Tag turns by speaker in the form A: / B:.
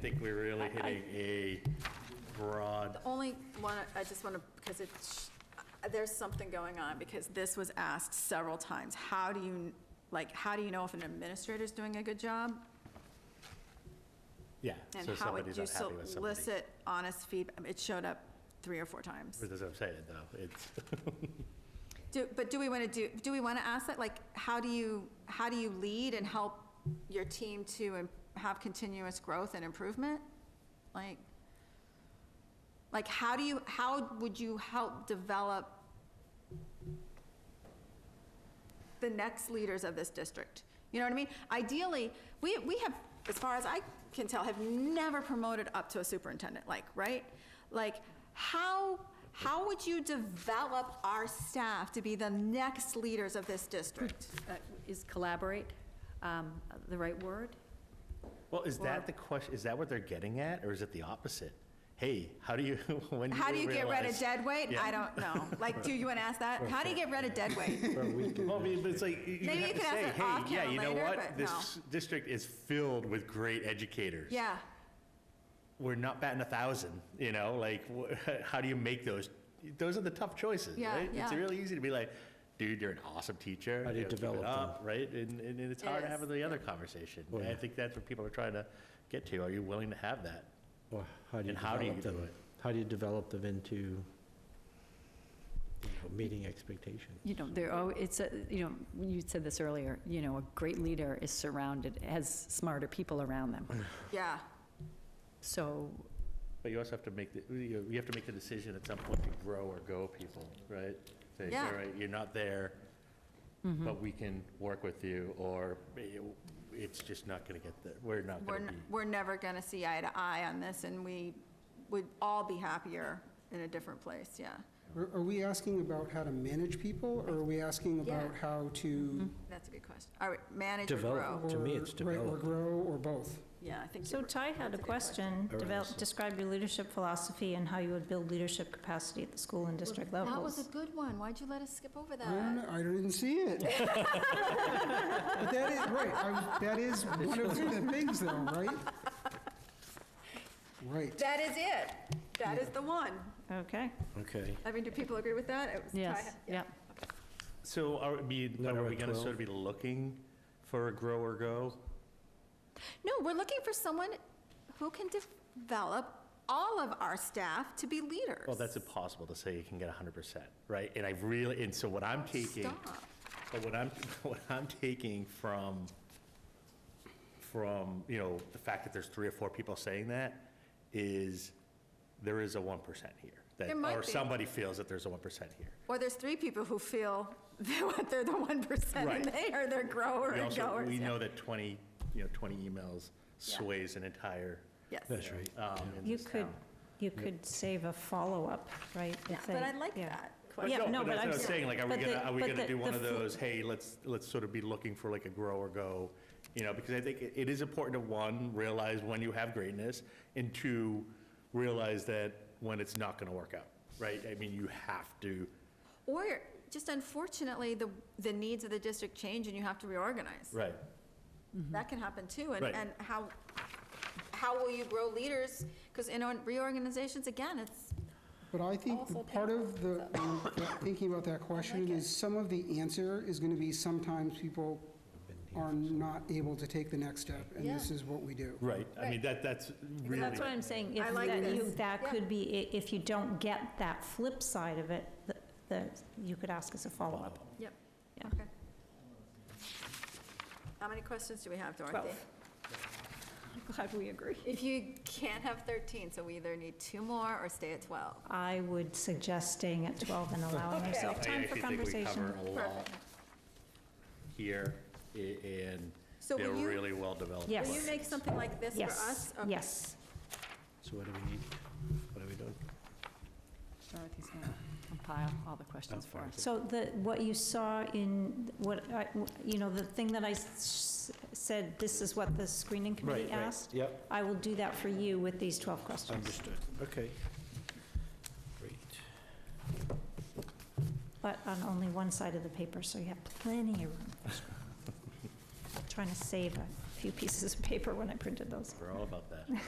A: think we're really hitting a broad,
B: Only one, I just want to, because it's, uh, there's something going on, because this was asked several times. How do you, like, how do you know if an administrator's doing a good job?
A: yeah.
B: And
A: so
B: how would
A: somebody's
B: you
A: unhappy with somebody.
B: solicit honest feedback? It showed up three or four times.
A: That's what I'm saying, though. It's,
B: Do, but do we want to do, do we want to ask that, like, how do you, how do you lead and help your team to im- have continuous growth and improvement? Like, like, how do you, how would you help develop the next leaders of this district? You know what I mean? Ideally, we, we have, as far as I can tell, have never promoted up to a superintendent, like, right? Like, how, how would you develop our staff to be the next leaders of this district?
C: Uh, Is collaborate um, the right word?
A: well, is that the question, is that what they're getting at, or is it the opposite? Hey, how do you, when do you
B: How do you get rid of
A: realize-
B: dead weight?
A: Yeah.
B: I don't know. Like, do you want to ask that? How do you get rid of dead weight?
A: Well, I mean, but it's like, you
B: Maybe
A: have
B: you
A: to
B: could ask
A: say,
B: it
A: hey,
B: off
A: yeah,
B: camera
A: you know
B: later,
A: what?
B: but
A: This district is filled with great educators.
B: Yeah,
A: We're not batting a thousand, you know, like, wh- how do you make those? Those are the tough choices,
B: Yeah,
A: right? It's
B: yeah.
A: really easy to be like, dude, you're an awesome teacher.
D: How do you
A: know, keep it
D: develop them?
A: up," Right? And, and it's
B: It
A: hard to
B: is,
A: have the other conversation.
D: Oh,
A: And I
D: yeah.
A: think that's what people are trying to get to. Are you willing to have that?
D: Or how do you
A: And how do you
D: develop them?
A: do it?
D: How do you develop them into, you know, meeting expectations?
C: You know, there, oh, it's, a- you know, you said this earlier, you know, a great leader is surrounded, has smarter people around them.
B: yeah.
C: So,
A: But you also have to make, the you you have to make the decision at some point to grow or go people, right? Say,
B: Yeah. Mm-hmm.
A: all right, you're not there, but we can work with you, or eh, it's just not going to get there, we're not
B: We're,
A: going to
B: n-
A: be.
B: we're never going to see eye to eye on this, and we would all be happier in a different place, yeah.
E: Are are we asking about how to manage people, or are we asking about
B: Yeah.
E: how to?
B: That's a good question. All right, manage or
D: Develop.
B: grow?
D: Mm-hmm. To me,
E: or-
D: it's
E: Right, or
D: development.
E: grow, or both?
B: Yeah, I think.
F: So
B: you-
F: Ty had
B: that's
F: a
B: good
F: question,
D: Or
F: develop,
D: else-
F: describe your leadership philosophy and how you would build leadership capacity at the school and district
B: That was a
F: levels.
B: good one. Why'd you let us skip over
E: I don't
F: Mm-hmm.
B: that?
E: know, I didn't see it. But that is, right, I- that is one of the things though, right? Right.
B: That is it. That is the one.
F: Okay.
D: Okay.
B: I mean, do people agree with that? It was Ty-
C: yes, yeah.
A: So are we, but
D: Now
A: are
D: we're
A: we
D: at
A: going to
D: 12.
A: sort of be looking for a grow or go?
B: No, we're looking for someone who can develop all of our staff to be leaders.
A: Well, that's impossible to say you can get 100%, right? And I really, and so what I'm taking.
B: Stop.
A: But what I'm, what I'm taking from, from, you know, the fact that there's three or four people saying that is there is a 1% here. that
B: There might
A: Or
B: be.
A: somebody feels that there's a 1% here.
B: Or there's three people who feel that they're the one percent and
A: Right.
B: they are their grower
A: We
B: and
A: also,
B: goers.
A: we
B: yeah.
A: know that 20, you know, 20 emails
B: Yeah.
A: sways an entire,
B: Yes.
D: That's right.
A: um, in
F: You
A: this
F: could,
A: town.
F: you could save a follow-up, right? if
B: Yeah,
F: they-
B: But I like
F: yeah.
B: that
A: But
B: question.
F: Yeah, no, but
A: that's
F: I'm
A: what I'm
F: sa-
A: saying, like, are we
F: but the-
A: gonna, are we
F: but
A: gonna
F: the-
A: do one
F: the
A: of
F: fl-
A: those, hey, let's, let's sort of be looking for like a grow or go? You know, because I think it- it is important to, one, realize when you have greatness, and two, realize that when it's not gonna work out, right? I mean, you have to,
B: Or just unfortunately, the, the needs of the district change and you have to reorganize.
A: right,
B: That can happen too, and,
A: Right.
B: and how, how will you grow leaders? Because in on- reorganizations, again, it's,
E: But I think
B: Also
E: part of the, that- thinking about that question is some of the answer is going to be sometimes people are not able to take the next step, and this
B: Yeah.
E: is what we do.
A: right, I mean, that, that's really.
F: That's what I'm saying.
B: I
F: If
B: like
F: that you-
B: this.
F: That
B: Yeah.
F: could be, i- if you don't get that flip side of it, th- that, you could ask as a follow-up.
B: yep,
F: Yeah.
B: okay. How many questions do we have, Dorothy?
F: Twelve. I'm glad we agree.
B: If you can't have thirteen, so we either need two more or stay at twelve.
F: I would suggest staying at 12 and allowing ourselves
A: I
F: time for
A: actually think we
F: conversation.
A: cover a lot here, a- and
B: So
A: they're
B: will you-
A: really well-developed.
F: Yes.
B: Will you make something like this for
F: Yes,
B: us? Okay.
F: yes.
D: So what do we need? What are we doing?
C: Dorothy's going to compile all the questions for us.
F: So the, what you saw in, what, I- you know, the thing that I s- said, this is what the screening committee asked?
D: Yep,
F: I will do that for you with these 12 questions.
D: understood. Okay. Great.
F: But on only one side of the paper, so you have plenty of room. Trying to save a few pieces of paper when I printed those.
A: We're all about that.